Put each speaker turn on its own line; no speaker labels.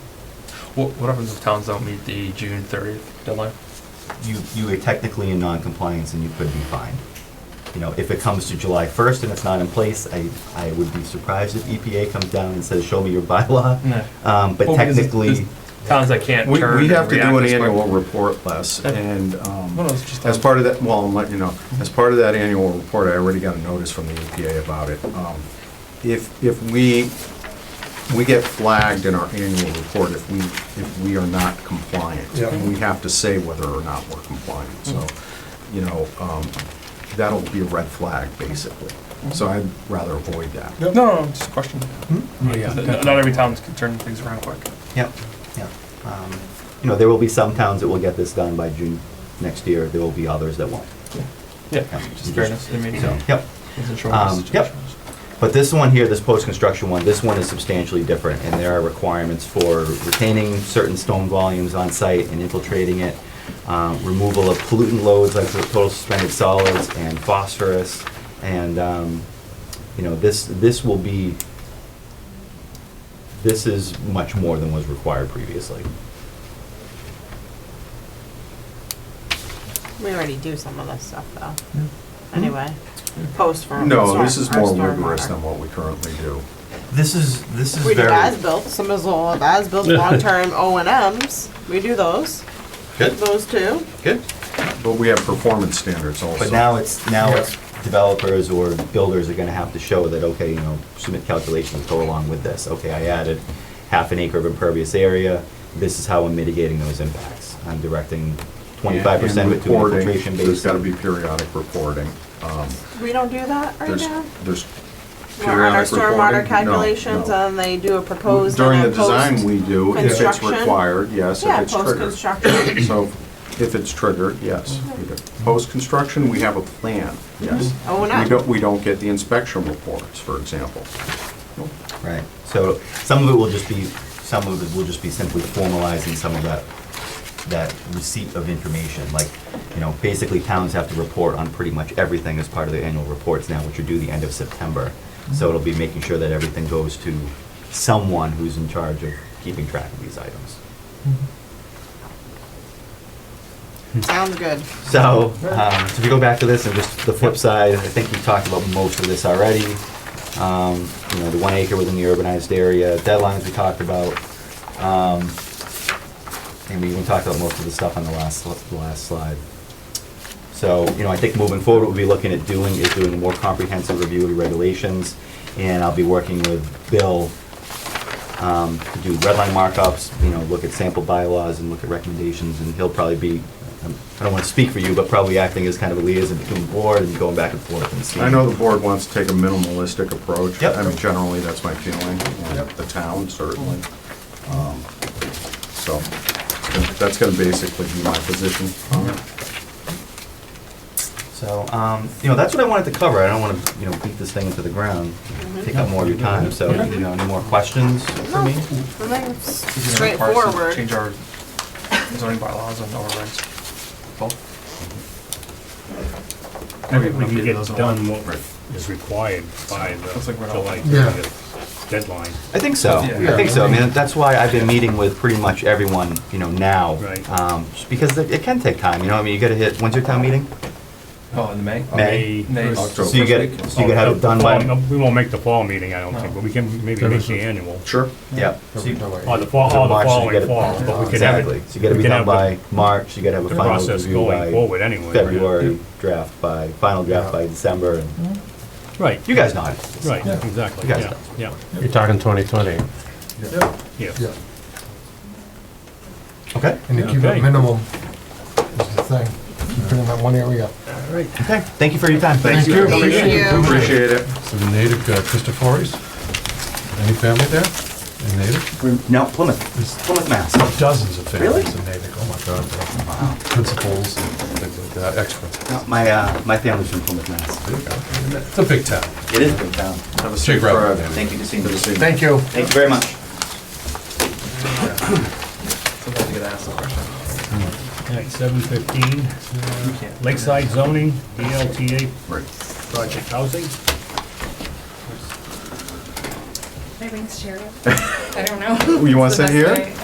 What, what happens if towns don't meet the June thirtieth deadline?
You, you are technically in non-compliance and you could be fined. You know, if it comes to July 1st and it's not in place, I, I would be surprised if EPA comes down and says, show me your bylaw.
No.
Um, But
Mm. Well, because there's
technically,
Towns that can't
We,
turn.
we
and
have to
react
do an
this quick.
annual report, Les,
Yeah.
and,
Well, Mm-hmm.
um,
it's just-
as part of that, well, I'm letting you know, as part of that annual report, I already got a notice from the EPA about it. Um, If, if we, we get flagged in our annual report if we, if we are not compliant.
Yeah.
And we have to say whether or not we're compliant, so,
Mm-hmm.
you know, um, that'll be a red flag, basically. So
Mm-hmm.
I'd rather avoid that.
Yep.
No, no, no, just a question.
Oh, yeah.
Not not every town can turn things around quick.
Yep, yep. Um, You know, there will be some towns that will get this done by June next year, there will be others that won't.
Yeah,
Yeah,
just
you
fairness, I mean,
So, yep.
wasn't sure what the
Um, yep.
situation was.
But this one here, this post-construction one, this one is substantially different, and there are requirements for retaining certain stone volumes on site and infiltrating it, um, removal of pollutant loads like the total suspended solids and phosphorus, and, um, you know, this, this will be, this is much more than was required previously.
We already do some of this stuff, though. Anyway, post for.
No,
storm-
this is
our
more
stormwater.
rigorous than what we currently do.
This is, this is
We do
very.
as-built, some is all of as-built, long-term O and Ms. We do those,
Good,
those too.
good.
But we have performance standards also.
But now it's, now it's developers or builders are gonna have to show that, okay, you know, submit calculations go along with this. Okay, I added half an acre of impervious area, this is how I'm mitigating those impacts. I'm directing twenty-five percent of it
And
to an
reporting,
infiltration
There's
basin.
gotta be periodic reporting. Um,
We don't do that right
There's,
now.
there's
We're on our
periodic
stormwater
reporting?
calculations,
No,
and they do a
no.
proposed
During the
and a
design,
post.
we do, if it's
construction.
required, yes, if
Yeah,
it's triggered.
post-construction.
So if it's triggered, yes. we do. Post-construction, we have a plan, yes.
Oh, no.
We don't, we don't get the inspection reports, for example.
Right, so some of it will just be, some of it will just be simply formalizing some of that, that receipt of information. Like, you know, basically towns have to report on pretty much everything as part of their annual reports now, which are due the end of September. So it'll be making sure that everything goes to someone who's in charge of keeping track of these items.
Sounds good.
So, um, so if you go back to this and just the flip side, I think we talked about most of this already. Um, you know, the one acre within the urbanized area, deadlines we talked about. Um, and we even talked about most of the stuff on the last, sli- the last slide. So, you know, I think moving forward, what we'll be looking at doing is doing a more comprehensive review of the regulations. And I'll be working with Bill, um, to do redline markups, you know, look at sample bylaws and look at recommendations. And he'll probably be, um, I don't want to speak for you, but probably acting as kind of a liaison between the board and going back and forth and seeing.
I know the board wants to take a minimalistic approach.
Yep.
I mean, generally, that's my feeling, and
Yep.
the town certainly. Um, So that's gonna basically be my position. Um,
So, um, you know, that's what I wanted to cover. I don't want to, you know, beat this thing into the ground, take up more of your time. So, you know, any more questions for
No,
me?
something
Is it gonna require us to
straightforward.
Change our zoning bylaws and overrides. Both?
We can
updated
get
those in a
done
while.
what is required by
Looks
the
like we're not-
July
Yeah.
30th deadline.
I think so.
Yeah.
I think so. I mean, that's why I've been meeting with pretty much everyone, you know, now.
Right.
Um, just because it it can take time, you know, I mean, you gotta hit, when's your town meeting?
Oh, in May?
May.
May.
October.
So you get, so you gotta have it done by,
Well, We won't make the fall meeting, I don't think,
No.
but we can maybe make the annual.
Sure.
yeah. So you-
Or the fall, or the
March, so you
following
gotta-
fall, but we can have
Exactly.
it.
So you gotta
we
be
can
done
have
by
the-
March, you gotta have a
The
final
process
review
going
by
forward anyway. right?
February, draft by, final draft by December, and
Right,
you guys know how to do this.
right,
Yeah.
exactly,
You guys
yeah,
know.
yeah,
You're talking 2020.
Yep,
yeah.
yep.
Okay?
And to keep
Okay.
it minimum is the thing. Keep it in that one area.
Okay, thank you for your time.
Thank you.
Thank you.
Appreciate it.
So the native uh, Christophore's, any family there? Any native?
No, Plymouth, Plymouth, Mass.
Dozens of
Really?
families in native, oh my God. Wow. Principals and things like that, experts.
No, My, uh, my family's from Plymouth, Mass.
There you go. It's a big town.
It is a big town.
Have a
Shake
safe
rattle,
ride.
man.
Thank you, Casino.
Good to see you.
Thank you.
Thank you very much.
Sometimes you gotta ask the question.
All right, seven fifteen,
You can't.
Lakeside zoning, BLTA
Right.
project housing.
My ring's cherry. I don't know.
You want
It's
to
the
sit
best
here?
way.